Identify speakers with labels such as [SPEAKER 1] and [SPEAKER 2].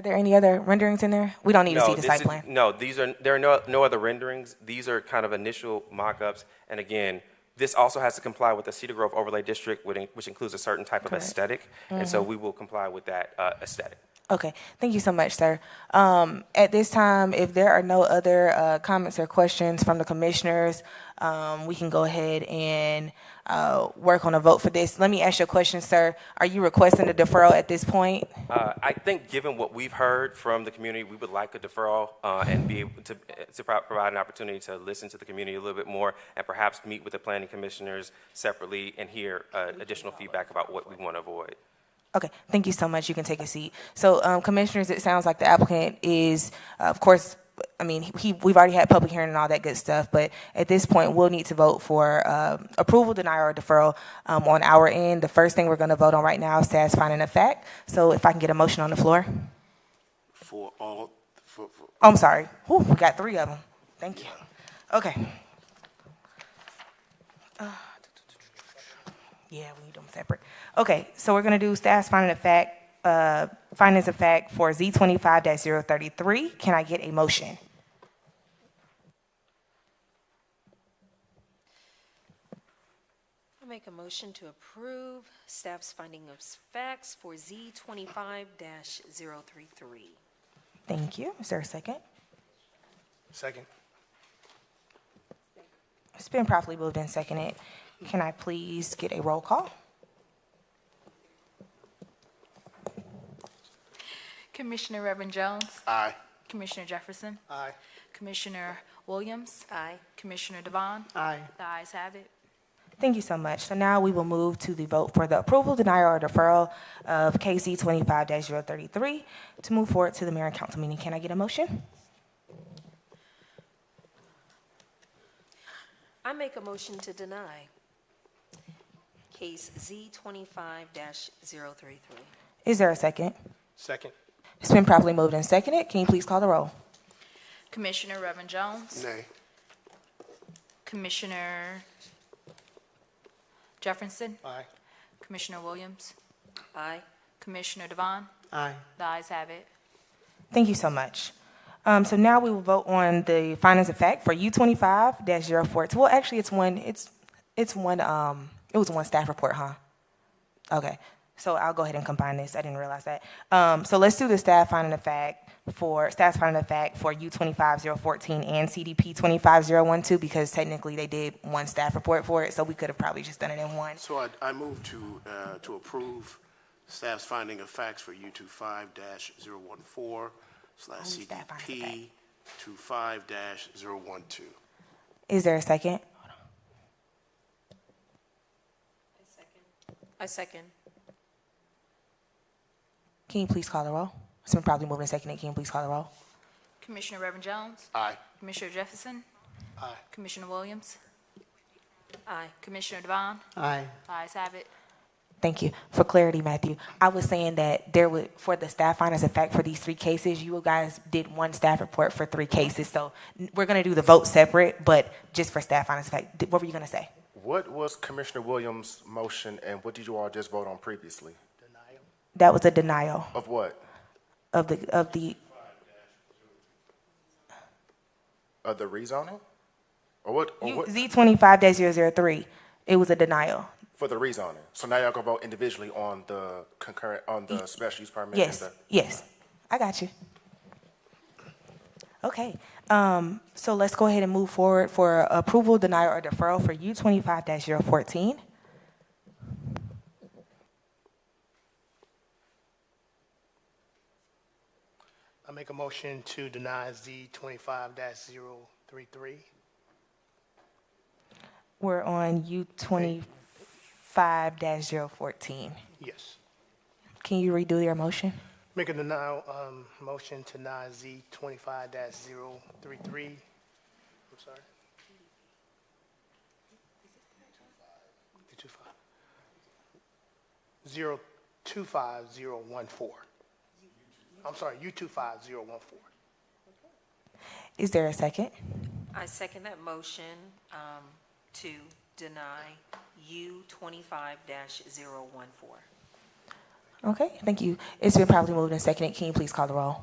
[SPEAKER 1] Are there any other renderings in there? We don't need to see the
[SPEAKER 2] this
[SPEAKER 1] site
[SPEAKER 2] is-
[SPEAKER 1] plan.
[SPEAKER 2] No, these are, there are no, no other renderings. These are kind of initial mock-ups. And again, this also has to comply with the Cedar Grove Overlay District, which in- which includes a certain type of aesthetic. And so
[SPEAKER 1] Mm-hmm.
[SPEAKER 2] we will comply with that uh, aesthetic.
[SPEAKER 1] Okay, thank you so much, sir. Um, at this time, if there are no other uh, comments or questions from the commissioners, um, we can go ahead and uh, work on a vote for this. Let me ask you a question, sir. Are you requesting a deferral at this point?
[SPEAKER 2] Uh, I think, given what we've heard from the community, we would like a deferral uh, and be able to, to pro- provide an opportunity to listen to the community a little bit more and perhaps meet with the planning commissioners separately and hear uh, additional feedback about what we want to avoid.
[SPEAKER 1] Okay, thank you so much. You can take a seat. So, um, commissioners, it sounds like the applicant is, uh, of course, I mean, he, we've already had public hearing and all that good stuff, but at this point, we'll need to vote for um approval, denial, or deferral um, on our end. The first thing we're going to vote on right now is status finding of fact. So, if I can get a motion on the floor.
[SPEAKER 3] For all, for, for,
[SPEAKER 1] Oh, I'm sorry. Whew, we got three of them. Thank you. Okay. Uh, Yeah, we need them separate. Okay, so we're gonna do staff's finding of fact, uh, findings of fact for Z twenty-five 33 Can I get a motion?
[SPEAKER 4] I'll make a motion to approve staff's finding of facts for Z twenty-five 33
[SPEAKER 1] Thank you. Is there a second?
[SPEAKER 5] Second.
[SPEAKER 1] It's been properly moved and seconded. Can I please get a roll call?
[SPEAKER 6] Commissioner Reverend Jones.
[SPEAKER 3] aye.
[SPEAKER 6] Commissioner Jefferson.
[SPEAKER 5] Aye.
[SPEAKER 6] Commissioner Williams.
[SPEAKER 4] Aye.
[SPEAKER 6] Commissioner Devon.
[SPEAKER 5] Aye.
[SPEAKER 6] The ayes have it.
[SPEAKER 1] Thank you so much. So now we will move to the vote for the approval, denial, or deferral of KC twenty-five 33 to move forward to the mayor and council meeting. Can I get a motion?
[SPEAKER 4] I make a motion to deny case Z twenty-five 33
[SPEAKER 1] Is there a second?
[SPEAKER 5] Second.
[SPEAKER 1] It's been properly moved and seconded. Can you please call the roll?
[SPEAKER 6] Commissioner Reverend Jones.
[SPEAKER 3] Nay.
[SPEAKER 6] Commissioner Jefferson.
[SPEAKER 5] Aye.
[SPEAKER 6] Commissioner Williams.
[SPEAKER 4] Aye.
[SPEAKER 6] Commissioner Devon.
[SPEAKER 5] Aye.
[SPEAKER 6] The ayes have it.
[SPEAKER 1] Thank you so much. Um, so now we will vote on the findings of fact for U twenty-five 42 Well, actually, it's one, it's, it's one, um, it was one staff report, huh? Okay, so I'll go ahead and combine this. I didn't realize that. Um, so let's do the staff finding of fact for, staff finding of fact for U twenty-five zero fourteen and CDP twenty-five zero one two, because technically they did one staff report for it, so we could have probably just done it in one.
[SPEAKER 3] So I, I move to, uh, to approve staff's finding of facts for U two five dash zero one four slash
[SPEAKER 1] Only staff finding of
[SPEAKER 3] CDP two five dash zero one two.
[SPEAKER 1] Is there a second?
[SPEAKER 4] I second.
[SPEAKER 1] Can you please call the roll? It's been probably moved and seconded. Can you please call the roll?
[SPEAKER 6] Commissioner Reverend Jones.
[SPEAKER 3] Aye.
[SPEAKER 6] Commissioner Jefferson.
[SPEAKER 5] Aye.
[SPEAKER 6] Commissioner Williams.
[SPEAKER 4] Aye.
[SPEAKER 6] Commissioner Devon.
[SPEAKER 5] Aye.
[SPEAKER 6] The ayes have it.
[SPEAKER 1] Thank you for clarity, Matthew. I was saying that there would, for the staff findings of fact for these three cases, you guys did one staff report for three cases. So n- we're gonna do the vote separate, but just for staff findings of fact, Th- what were you gonna say?
[SPEAKER 7] What was Commissioner Williams' motion and what did you all just vote on previously?
[SPEAKER 1] That was a denial
[SPEAKER 7] Of what?
[SPEAKER 1] of the, of the,
[SPEAKER 7] Of the rezoning? Or what, or what,
[SPEAKER 1] Z twenty-five 3 It was a denial.
[SPEAKER 7] for the rezoning? So now y'all gonna vote individually on the concurrent, on the special use permit? and
[SPEAKER 1] Yes,
[SPEAKER 7] the-
[SPEAKER 1] yes, I got you. Okay, um, so let's go ahead and move forward for approval, denial, or deferral for U twenty-five 14
[SPEAKER 5] I make a motion to deny Z twenty-five dash zero three three.
[SPEAKER 1] We're on U twenty-five 14
[SPEAKER 5] Yes.
[SPEAKER 1] Can you redo your motion?
[SPEAKER 5] Make a denial, um, motion to deny Z twenty-five dash zero three three. I'm sorry. Two five. Zero two five zero one four. I'm sorry, U two five zero one four.
[SPEAKER 1] Is there a second?
[SPEAKER 4] I second that motion um, to deny U twenty-five 14
[SPEAKER 1] Okay, thank you. It's been properly moved and seconded. Can you please call the roll?